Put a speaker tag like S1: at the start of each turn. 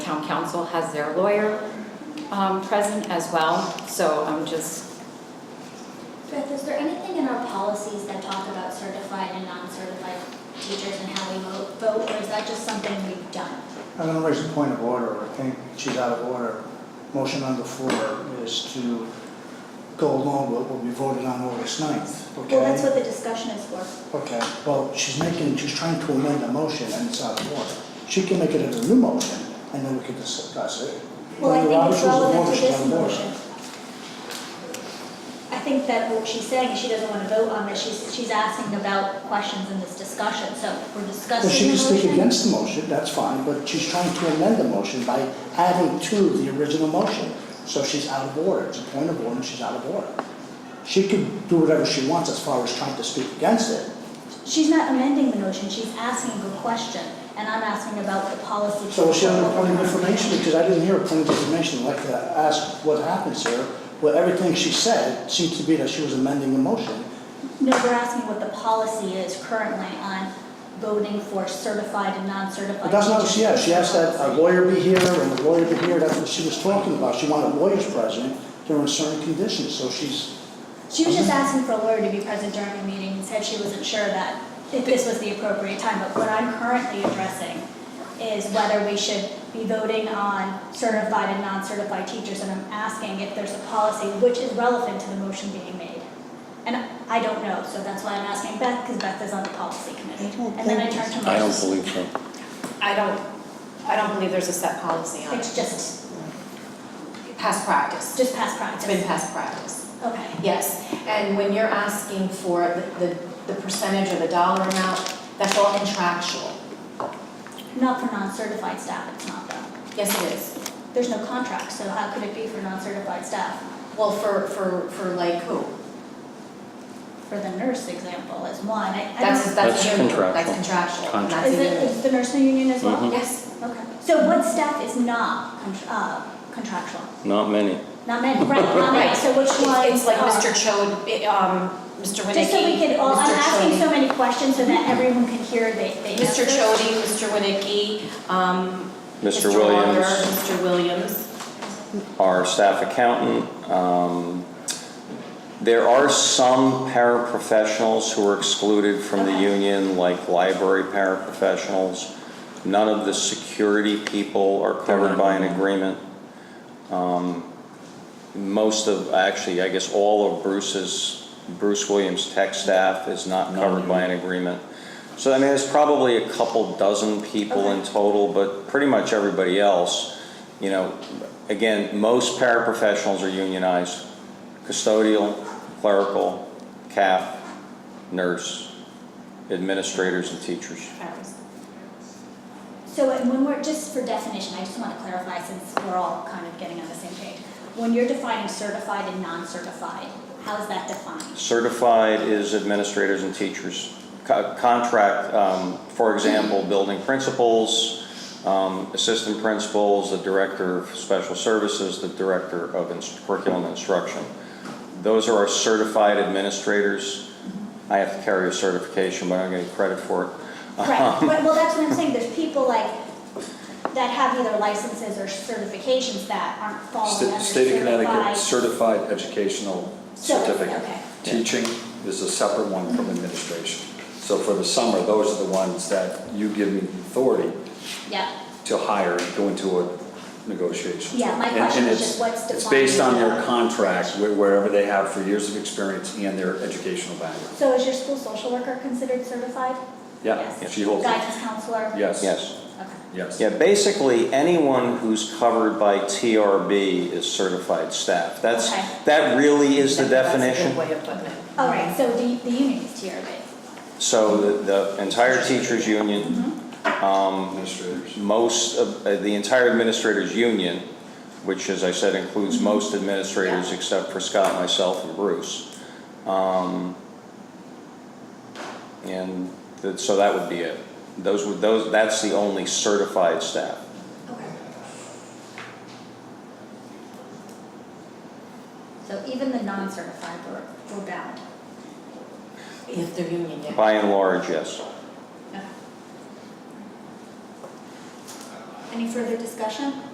S1: town council has their lawyer um, present as well, so I'm just
S2: Beth, is there anything in our policies that talk about certified and non-certified teachers and how we mo- vote, or is that just something we've done?
S3: I'm gonna raise a point of order, I think she's out of order. Motion on the floor is to go along with what will be voted on August 9th, okay?
S2: Well, that's what the discussion is for.
S3: Okay, well, she's making, she's trying to amend the motion and it's out of order. She can make it as a new motion and then we can discuss it.
S2: Well, I
S3: Under
S2: think
S3: Robert's
S2: it's
S3: rules of
S2: relevant
S3: order,
S2: to
S3: she's
S2: this
S3: out of order.
S2: motion. I think that what she's saying is she doesn't want to vote on this, she's, she's asking about questions in this discussion, so we're
S3: Well, she
S2: discussing the
S3: can speak
S2: motion.
S3: against the motion, that's fine, but she's trying to amend the motion by adding to the original motion. So she's out of order, it's a point of order, and she's out of order. She could do whatever she wants as far as trying to speak against it.
S2: She's not amending the motion, she's asking a question, and I'm asking about the policy.
S3: So is she on a point of information, because I didn't hear a point of information, I'd like to ask what happens here. Well, everything she said seems to be that she was amending the motion.
S2: No, we're asking what the policy is currently on voting for certified and non-certified.
S3: But that's not what she asked, she asked that uh, a
S2: teachers.
S3: lawyer be here and a lawyer be here, that's what she was talking about. She wanted lawyers present during certain conditions, so she's
S2: She was just asking for a lawyer to be present during the meeting and said she wasn't sure that, if this was the appropriate time. But what I'm currently addressing is whether we should be voting on certified and non-certified teachers. And I'm asking if there's a policy which is relevant to the motion being made. And I don't know, so that's why I'm asking Beth, because Beth is on the policy committee. And then I turn to
S4: I don't
S2: Marcia.
S4: believe so.
S5: I don't, I don't believe there's a set policy on
S2: It's
S5: it.
S2: just,
S5: Past practice,
S2: just past practice.
S5: it's been past practice.
S2: Okay.
S5: Yes, and when you're asking for the, the percentage or the dollar amount, that's all contractual.
S2: Not for non-certified staff, it's not though.
S5: Yes, it is.
S2: There's no contract, so how could it be for non-certified staff?
S5: Well, for, for, for like who?
S2: For the nurse example is one, I, I don't.
S5: That's, that's
S4: That's
S5: union, that's
S4: contractual.
S5: contractual, and
S4: Contract.
S2: Is
S5: that's a
S2: it,
S5: union. Mm-hmm.
S2: is the nursing union as well?
S4: Mhm.
S5: Yes,
S2: Okay, so what staff is not con- uh, contractual?
S4: Not many.
S2: Not many, right, not many,
S5: Right.
S2: um, so which ones?
S5: it's like
S2: are?
S5: Mr. Chode, um, Mr. Winnicky, Mr. Chode.
S2: Just so we could all, I'm asking so many questions so that everyone can hear the, the
S5: Mr.
S2: answers.
S5: Chody, Mr. Winnicky, um,
S4: Mr.
S5: Mr. Waller,
S4: Williams.
S5: Mr. Williams.
S4: Our staff accountant, um, there are some paraprofessionals who are excluded from the
S2: Okay.
S4: union, like library paraprofessionals. None of the security people are covered by an agreement. Um, Most of, actually, I guess all of Bruce's, Bruce Williams' tech staff is not covered by an agreement. So I mean, there's probably a couple dozen people in total, but pretty much everybody else, you know, again, most paraprofessionals are unionized. Custodial, clerical, CAF, nurse, administrators and teachers.
S2: So and when we're, just for definition, I just want to clarify since we're all kind of getting on the same page. When you're defining certified and non-certified, how is that defined?
S4: Certified is administrators and teachers. Co- Contract, um, for example, building principals, um, assistant principals, the director of special services, the director of ins- curriculum instruction. Those are our certified administrators. I have to carry a certification, but I don't get credit for it.
S2: Right,
S6: Uh-huh.
S2: but, well, that's what I'm saying, there's people like, that have either licenses or certifications that aren't falling
S6: Sta-
S2: under
S6: State of
S2: certified.
S6: Connecticut Certified Educational
S2: So,
S6: Certificate.
S2: okay.
S6: Teaching is a separate one from administration. So for the summer, those are the ones that you give me authority
S2: Yeah,
S6: to hire and go into a negotiation.
S2: Yeah, my
S6: And-
S2: question
S6: and
S2: is
S6: it's-
S2: just what's
S6: It's based on
S2: defined
S6: their
S2: as-
S6: contract, wh- wherever they have for years of experience and their educational background.
S2: so is your school social worker considered certified?
S6: Yeah,
S2: Yes.
S6: she holds it.
S2: Guidance counselor?
S6: Yes.
S4: Yes.
S2: Okay,
S6: Yes.
S4: Yeah, basically, anyone who's covered by TRB is certified staff. That's,
S2: Okay.
S4: that really is the definition.
S5: That's a good way of putting it.
S2: all right, so the, the union is tier, right?
S4: So the- the entire teachers' union, um,
S6: Administrators.
S4: most of, uh, the entire administrators' union, which as I said includes most administrators except for Scott, myself, and Bruce. Um, And th- so that would be it. Those would, those, that's the only certified staff.
S2: Okay. So even the non-certified were, were bound.
S5: If they're union, yeah.
S4: By and large, yes.
S2: Okay. Any further discussion?